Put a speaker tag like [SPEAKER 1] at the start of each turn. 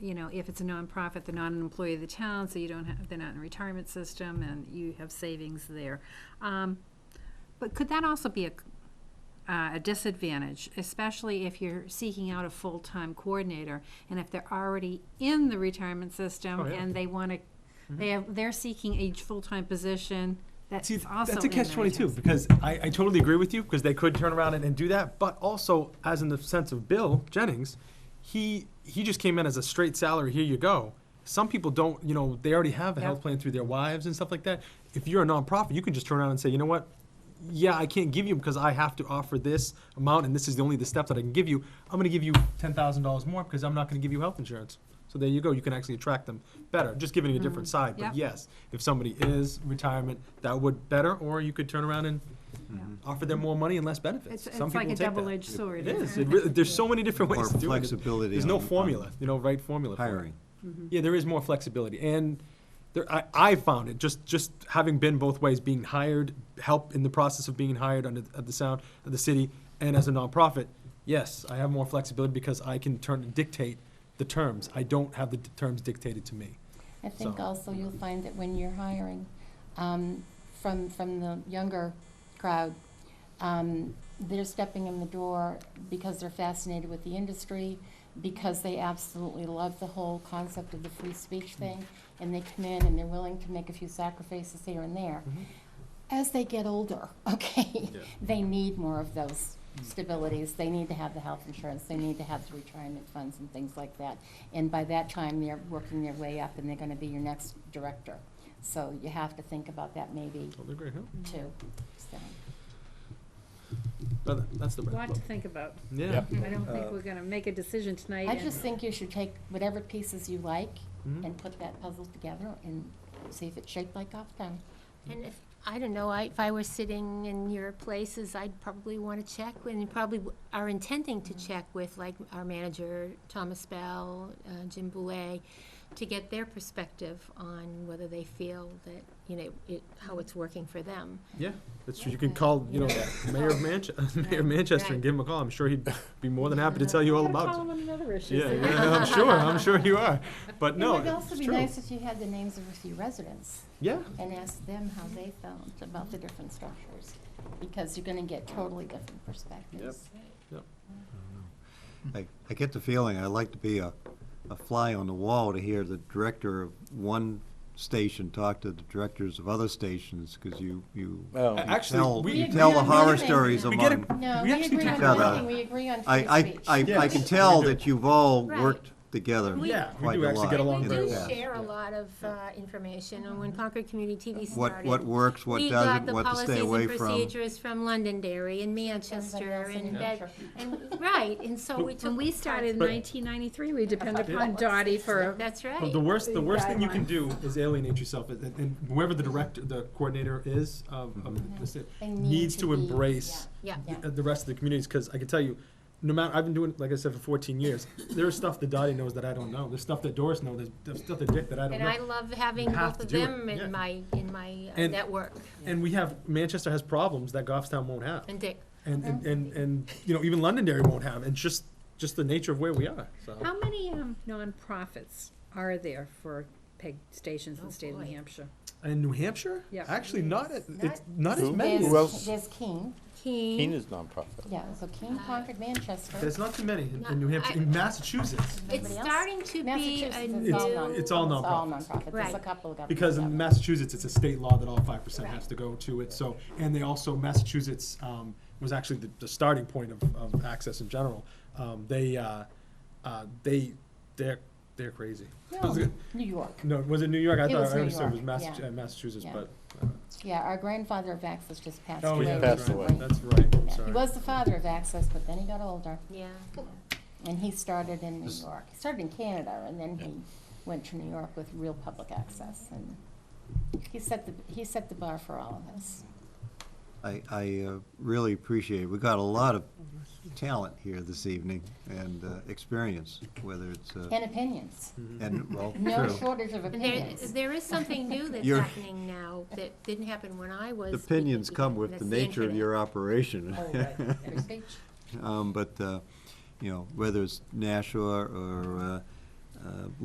[SPEAKER 1] you know, if it's a nonprofit, they're not an employee of the town, so you don't have, they're not in a retirement system, and you have savings there. Um, But could that also be a, c- uh, a disadvantage, especially if you're seeking out a full-time coordinator? And if they're already in the retirement system
[SPEAKER 2] Oh, yeah. Mm-hmm.
[SPEAKER 1] and they wanna, they have, they're seeking a full-time position that's
[SPEAKER 2] See,
[SPEAKER 1] also in
[SPEAKER 2] that's a
[SPEAKER 1] the
[SPEAKER 2] catch twenty-two,
[SPEAKER 1] retirement
[SPEAKER 2] because I, I totally agree with you, because they could turn around and, and do that, but also, as in the sense of Bill Jennings, he, he just came in as a straight salary, here you go. Some people don't, you know, they already have a health
[SPEAKER 1] Yeah.
[SPEAKER 2] plan through their wives and stuff like that. If you're a nonprofit, you can just turn around and say, you know what? Yeah, I can't give you because I have to offer this amount, and this is the only the step that I can give you. I'm gonna give you ten thousand dollars more because I'm not gonna give you health insurance. So there you go, you can actually attract them better, just giving it a different side,
[SPEAKER 1] Mm-hmm. Yep.
[SPEAKER 2] but yes, if somebody is retirement, that would better, or you could turn around and offer them more money and less benefits.
[SPEAKER 1] Mm-hmm. It's,
[SPEAKER 2] Some
[SPEAKER 1] it's like
[SPEAKER 2] people
[SPEAKER 1] a
[SPEAKER 2] take that.
[SPEAKER 1] double-edged sword.
[SPEAKER 2] It is,
[SPEAKER 1] isn't
[SPEAKER 2] It really- there's so many different
[SPEAKER 3] More
[SPEAKER 2] ways to do it.
[SPEAKER 3] flexibility.
[SPEAKER 2] There's no
[SPEAKER 3] on- on
[SPEAKER 2] formula, you know, right formula. for it.
[SPEAKER 3] Hiring.
[SPEAKER 2] Yeah, there is more flexibility, and there, I, I found it, just, just having been both ways, being hired, help in the process of being hired under, at the sound, of the city, and as a nonprofit, yes, I have more flexibility because I can turn, dictate the terms. I don't have the d- terms dictated to me.
[SPEAKER 4] I think
[SPEAKER 2] So-
[SPEAKER 4] also you'll find that when you're hiring, um, from, from the younger crowd, um, they're stepping in the door because they're fascinated with the industry, because they absolutely love the whole concept of the free speech thing, and they come in and they're willing to make a few sacrifices here and there. As they get older, okay,
[SPEAKER 2] Yeah.
[SPEAKER 4] they need more of those stabilities. They need to have the health insurance, they need to have the retirement funds and things like that. And by that time, they're working their way up and they're gonna be your next director. So you have to think about that maybe
[SPEAKER 2] Totally agree, huh?
[SPEAKER 4] too. So,
[SPEAKER 2] But that's the
[SPEAKER 1] it?
[SPEAKER 2] bread.
[SPEAKER 1] Lot to think about.
[SPEAKER 2] Yeah.
[SPEAKER 1] I don't
[SPEAKER 2] Uh,
[SPEAKER 1] think we're gonna make a decision tonight.
[SPEAKER 4] I
[SPEAKER 1] and-
[SPEAKER 4] just think you should take whatever pieces you like
[SPEAKER 2] Mhm.
[SPEAKER 4] and put that puzzle together and see if it's shaped like Goffstown.
[SPEAKER 5] And if, I don't know, I, if I were sitting in your places, I'd probably want to check, and you probably w- are intending
[SPEAKER 4] Mm-hmm.
[SPEAKER 5] to check with, like, our manager, Thomas Bell, uh, Jim Boulay, to get their perspective on whether they feel that, you know, it, how
[SPEAKER 4] Mm-hmm.
[SPEAKER 5] it's working for them.
[SPEAKER 2] Yeah, that's true. You can call, you know, Mayor of Manchester, Mayor of Manchester and give him a call. I'm sure he'd be more than happy to tell you all
[SPEAKER 1] Gotta call
[SPEAKER 2] about it.
[SPEAKER 1] him on another issue.
[SPEAKER 2] Yeah, yeah, I'm sure, I'm sure you are. But no,
[SPEAKER 4] It would also
[SPEAKER 2] it's
[SPEAKER 4] be
[SPEAKER 2] true.
[SPEAKER 4] nice if you had the names of a few residents.
[SPEAKER 2] Yeah,
[SPEAKER 4] and ask them how they felt about the different structures, because you're gonna get totally different perspectives.
[SPEAKER 3] I, I get the feeling, I'd like to be a, a fly on the wall to hear the director of one station talk to the directors of other stations, because you, you
[SPEAKER 6] Oh.
[SPEAKER 2] A- actually,
[SPEAKER 3] tell,
[SPEAKER 2] we,
[SPEAKER 3] you
[SPEAKER 4] We
[SPEAKER 3] tell
[SPEAKER 4] agree
[SPEAKER 3] the
[SPEAKER 4] on
[SPEAKER 3] horror
[SPEAKER 4] nothing.
[SPEAKER 3] stories
[SPEAKER 2] We get a-
[SPEAKER 3] among.
[SPEAKER 4] No,
[SPEAKER 2] We
[SPEAKER 4] we
[SPEAKER 2] actually
[SPEAKER 4] agree on
[SPEAKER 2] took that
[SPEAKER 3] out.
[SPEAKER 4] nothing, we agree on
[SPEAKER 3] I,
[SPEAKER 4] free
[SPEAKER 3] I,
[SPEAKER 4] speech.
[SPEAKER 3] I, I
[SPEAKER 2] Yes.
[SPEAKER 3] can tell
[SPEAKER 2] We do.
[SPEAKER 3] that you've all
[SPEAKER 5] Right.
[SPEAKER 3] worked together
[SPEAKER 5] We- Yeah,
[SPEAKER 2] we
[SPEAKER 3] quite
[SPEAKER 2] do
[SPEAKER 3] a
[SPEAKER 2] actually
[SPEAKER 3] lot.
[SPEAKER 2] get along
[SPEAKER 3] in
[SPEAKER 5] We
[SPEAKER 3] the
[SPEAKER 2] very
[SPEAKER 5] do
[SPEAKER 2] well.
[SPEAKER 3] past.
[SPEAKER 5] share a lot of uh, information, and
[SPEAKER 4] Mm-hmm.
[SPEAKER 5] when Concord Community TV
[SPEAKER 3] What,
[SPEAKER 5] started.
[SPEAKER 3] what works, what doesn't, what to stay away
[SPEAKER 5] We got the policies and
[SPEAKER 3] from.
[SPEAKER 5] procedures from Londonderry and Manchester
[SPEAKER 4] Everybody else in
[SPEAKER 5] and
[SPEAKER 4] New
[SPEAKER 5] Bed,
[SPEAKER 4] Hampshire.
[SPEAKER 5] and, right, and so we took.
[SPEAKER 1] When we started in
[SPEAKER 2] But-
[SPEAKER 1] 1993, we depended upon Dottie for,
[SPEAKER 5] That's right.
[SPEAKER 2] But the worst, the
[SPEAKER 1] the
[SPEAKER 2] worst thing you
[SPEAKER 1] guideline.
[SPEAKER 2] can do is alienate yourself, and, and- and whoever the director, the coordinator is of,
[SPEAKER 3] Mm-hmm.
[SPEAKER 2] of the city,
[SPEAKER 4] They need
[SPEAKER 2] needs
[SPEAKER 4] to
[SPEAKER 2] to
[SPEAKER 4] be-
[SPEAKER 2] embrace
[SPEAKER 5] Yeah.
[SPEAKER 4] Yeah.
[SPEAKER 2] the- the rest of the communities, because I can tell you, no matter, I've been doing, it, like I said, for fourteen years, there's stuff that Dottie knows that I don't know, there's stuff that Doris knows, there's- there's stuff that Dick that I don't
[SPEAKER 5] And I
[SPEAKER 2] know.
[SPEAKER 5] love having
[SPEAKER 2] You have
[SPEAKER 5] both
[SPEAKER 2] to
[SPEAKER 5] of
[SPEAKER 2] do it,
[SPEAKER 5] them
[SPEAKER 2] yeah.
[SPEAKER 5] in my, in my uh,
[SPEAKER 2] And-
[SPEAKER 5] network,
[SPEAKER 2] And we have, Manchester has problems that Goffstown won't have,
[SPEAKER 5] and Dick.
[SPEAKER 2] and, and, and, and, you know, even Londonderry won't have, and just, just the nature of where we are, so.
[SPEAKER 1] how many um, nonprofits are there for PEG stations in the
[SPEAKER 5] Oh,
[SPEAKER 1] state of
[SPEAKER 5] boy.
[SPEAKER 1] New Hampshire?
[SPEAKER 2] In New Hampshire?
[SPEAKER 1] Yeah.
[SPEAKER 2] Actually, not, a-
[SPEAKER 4] Not-
[SPEAKER 2] it's not as
[SPEAKER 6] Who?
[SPEAKER 2] many. as-
[SPEAKER 6] Who else?
[SPEAKER 4] There's, there's Keene,
[SPEAKER 6] Keene
[SPEAKER 5] Keene.
[SPEAKER 6] is nonprofit.
[SPEAKER 4] yeah, so Keene, Concord, Manchester,
[SPEAKER 2] There's not too many in, in
[SPEAKER 5] No,
[SPEAKER 2] New Hampshire,
[SPEAKER 5] I-
[SPEAKER 2] in Massachusetts.
[SPEAKER 5] It's
[SPEAKER 4] Anybody else?
[SPEAKER 5] starting to be
[SPEAKER 4] Massachusetts
[SPEAKER 5] a
[SPEAKER 4] is all
[SPEAKER 2] It's-
[SPEAKER 4] non.
[SPEAKER 5] new,
[SPEAKER 2] it's all nonprofits.
[SPEAKER 4] It's all nonprofit, there's a
[SPEAKER 5] Right.
[SPEAKER 4] couple of government.
[SPEAKER 2] Because in
[SPEAKER 4] jobs.
[SPEAKER 2] Massachusetts, it's a state law that all five percent
[SPEAKER 5] Right.
[SPEAKER 2] has to go to it, so, and they also, Massachusetts, um, was actually the, the starting point of, of access in general. Um, they, uh, uh, they, they're, they're crazy. Was
[SPEAKER 4] No,
[SPEAKER 2] it-
[SPEAKER 4] New York,
[SPEAKER 2] No, was it New York? I
[SPEAKER 4] It
[SPEAKER 2] thought,
[SPEAKER 4] was
[SPEAKER 2] I
[SPEAKER 4] New
[SPEAKER 2] understood it was
[SPEAKER 4] York,
[SPEAKER 2] Massa-
[SPEAKER 4] yeah.
[SPEAKER 2] uh, Massachusetts,
[SPEAKER 4] Yeah.
[SPEAKER 2] but. uh,
[SPEAKER 4] yeah, our grandfather of Access just passed
[SPEAKER 2] Oh,
[SPEAKER 4] away.
[SPEAKER 2] yeah,
[SPEAKER 6] Passed
[SPEAKER 2] that's
[SPEAKER 6] away.
[SPEAKER 2] right,
[SPEAKER 4] recently.
[SPEAKER 2] that's right,
[SPEAKER 4] Yeah, He
[SPEAKER 2] sorry.
[SPEAKER 4] was the father of Access, but then he got older.
[SPEAKER 5] yeah.
[SPEAKER 4] And he started in New
[SPEAKER 3] This-
[SPEAKER 4] York. He started in Canada, and then
[SPEAKER 6] Yeah.
[SPEAKER 4] he went to New York with real public access. And he set the he set the bar for all of us.
[SPEAKER 3] I, I uh, really appreciate it. We got a lot of talent here this evening and uh, experience, whether it's, uh,
[SPEAKER 4] And opinions,
[SPEAKER 3] and, well,
[SPEAKER 4] no
[SPEAKER 3] true.
[SPEAKER 4] shortage of
[SPEAKER 5] And there,
[SPEAKER 4] opinions.
[SPEAKER 5] there is something new that's
[SPEAKER 3] You're-
[SPEAKER 5] happening now that didn't happen when I was.
[SPEAKER 3] The Opinions
[SPEAKER 5] because
[SPEAKER 3] come with
[SPEAKER 5] that's
[SPEAKER 3] the nature of
[SPEAKER 5] internet.
[SPEAKER 3] your operation.
[SPEAKER 4] Oh, Free speech.
[SPEAKER 3] Um, But, uh, you know, whether it's Nashua or uh, uh,